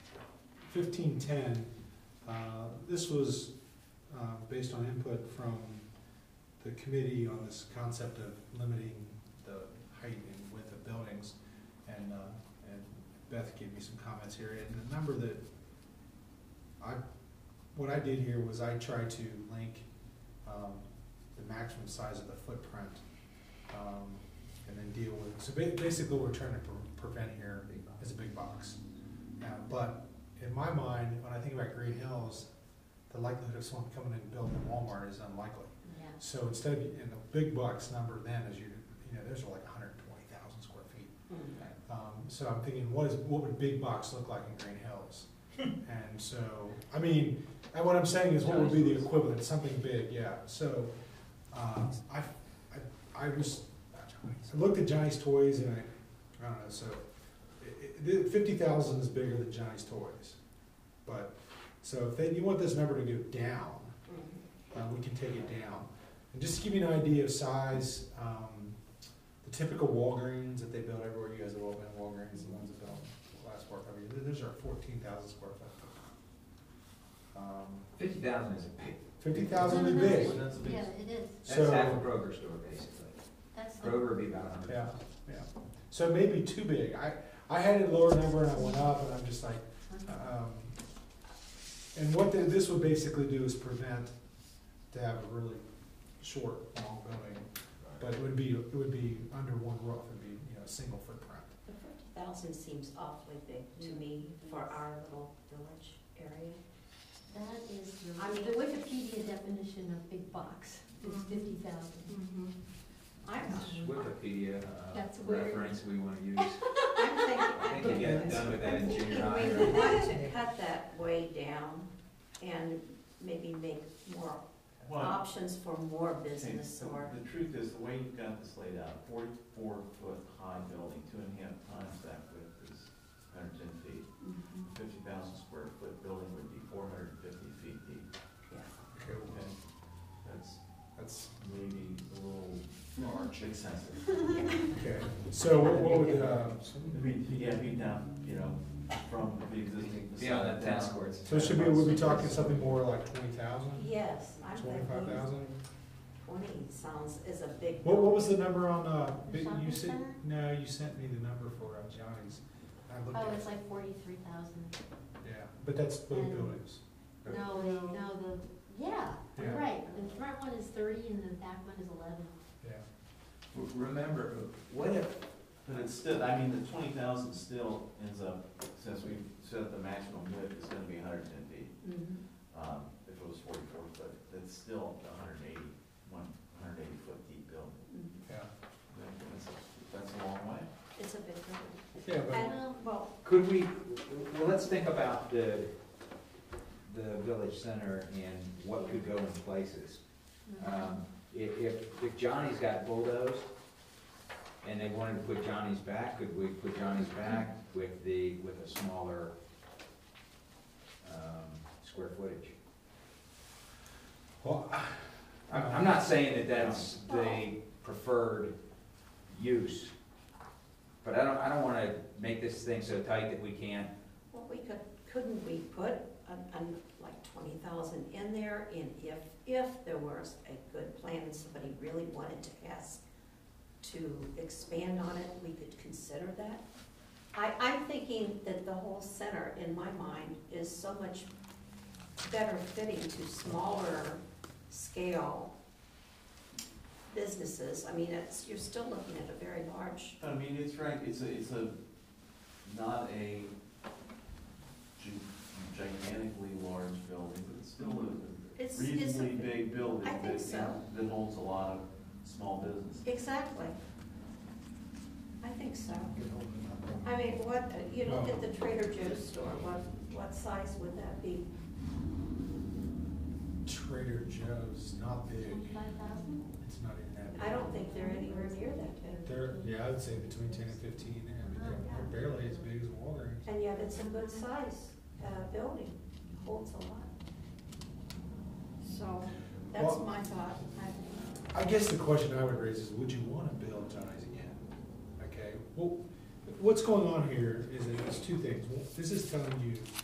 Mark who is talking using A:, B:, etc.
A: 1510, uh, this was uh, based on input from the committee on this concept of limiting the height and width of buildings. And, uh, and Beth gave me some comments here, and the number that I, what I did here was I tried to link um, the maximum size of the footprint, um, and then deal with, so ba- basically what we're trying to pre- prevent here is a big box. Now, but in my mind, when I think about Green Hills, the likelihood of someone coming in and building a Walmart is unlikely.
B: Yeah,
A: So instead of, and the big box number then is you, you know, those are like hundred and twenty thousand square feet. Um, so I'm thinking, what is, what would big box look like in Green Hills? And so, I mean, and what I'm saying is what would be the equivalent, something big, yeah, so, uh, I, I, I was, I looked at Johnny's Toys and I, I don't know, so, it, it, fifty thousand is bigger than Johnny's Toys. But, so if they, you want this number to go down, uh, we can take it down. And just to give you an idea of size, um, the typical Walgreens that they build everywhere, you guys have all been at Walgreens, the ones that built last four, five years, those are fourteen thousand square foot. Um,
C: Fifty thousand is a big,
A: Fifty thousand is
B: Big.
A: big,
C: well, that's a big,
B: Yeah, it is,
C: that's half a
A: so,
C: Kroger store, basically.
B: that's the.
C: Kroger would be about a hundred.
A: yeah, yeah. So it may be too big. I, I had a lower number and I went up and I'm just like, Um, And what the- this would basically do is prevent to have a really short, long building, but it would be, it would be under one roof, it'd be, you know, a single footprint.
D: The fifty thousand seems awfully big to me for our little village area.
B: That is,
D: I
B: I mean,
D: mean-
B: the Wikipedia definition of big box is
D: Mhm.
B: fifty thousand.
D: I'm,
C: Wikipedia uh,
B: That's weird.
C: reference we wanna use.
D: I'm thinking.
C: I think you get done with that
D: I'm
C: in
D: thinking
C: junior high.
D: we want to cut that way down and maybe make more
E: Well,
D: options for more
E: okay,
D: business
E: so
D: or,
E: the truth is, the way you've got this laid out, forty-four foot high building, two and a half times that width is hundred and ten feet. Fifty thousand square foot building would be four hundred and fifty feet deep,
A: Okay, well,
E: okay? That's
A: That's,
E: maybe a little large, excessive.
A: okay, so what what would, uh,
E: I mean, to get me down, you know, from the existing facade.
C: Beyond that tennis
E: down.
C: courts.
A: so should we, would we talking something more like twenty thousand,
D: yes, I'm
A: twenty-five
D: thinking
A: thousand?
D: twenty sounds is a big.
A: What, what was the number on, uh,
B: The
A: you
B: shopping
A: said,
B: center?
A: no, you sent me the number for uh, Johnny's. I looked
B: Oh,
A: at
B: it's
A: it,
B: like forty-three thousand.
A: yeah, but that's big
B: And-
A: buildings.
B: No, the- no, the, yeah, you're
A: Yeah.
B: right. The front one is thirty and the back one is eleven.
A: Yeah,
C: W- Remember, what if,
E: But it's still, I mean, the twenty thousand still ends up, since we said the maximum width is gonna be hundred and ten feet.
D: Mm-hmm,
E: um, if it was forty-four foot, that's still a hundred and eighty, one, hundred and eighty foot deep building.
A: yeah.
E: That's, that's a long way.
D: mm-hmm. It's a big number.
A: Yeah, but
D: And, well,
C: could we, well, let's think about the, the village center and what could go in places. Um, if, if, if Johnny's got bulldozed and they wanted to put Johnny's back, could we put Johnny's back with the, with a smaller, um, square footage?
A: Well,
C: I'm, I'm not saying that that's the preferred use, but I don't, I don't wanna make this thing so tight that we can't,
D: Well, we could, couldn't we put an, an, like twenty thousand in there, and if, if there was a good plan and somebody really wanted to ask to expand on it, we could consider that? I, I'm thinking that the whole center, in my mind, is so much better fitting to smaller scale businesses, I mean, it's, you're still looking at a very large,
E: I mean, it's right, it's a, it's a, not a gi- gigantically large building, but it's still
D: It's- it's
E: a
D: a-
E: reasonably big building.
D: I think
E: that-
D: so.
E: That holds a lot of small business.
D: exactly. I think so. I mean, what, you look at the Trader Joe's store, what, what size would that be?
A: Trader Joe's not big.
B: Twenty-five thousand?
A: It's not even that big.
D: I don't think they're anywhere near that big.
A: They're, yeah, I'd say between ten and fifteen. I mean, they're, they're barely as big as Walgreens.
D: And yet it's a good size, uh, building, holds a lot. So, that's
A: Well-
D: my thought. I-
A: I guess the question I would raise is, would you want to build Johnny's again? Okay, well, what's going on here is that it's two things. One, This is telling you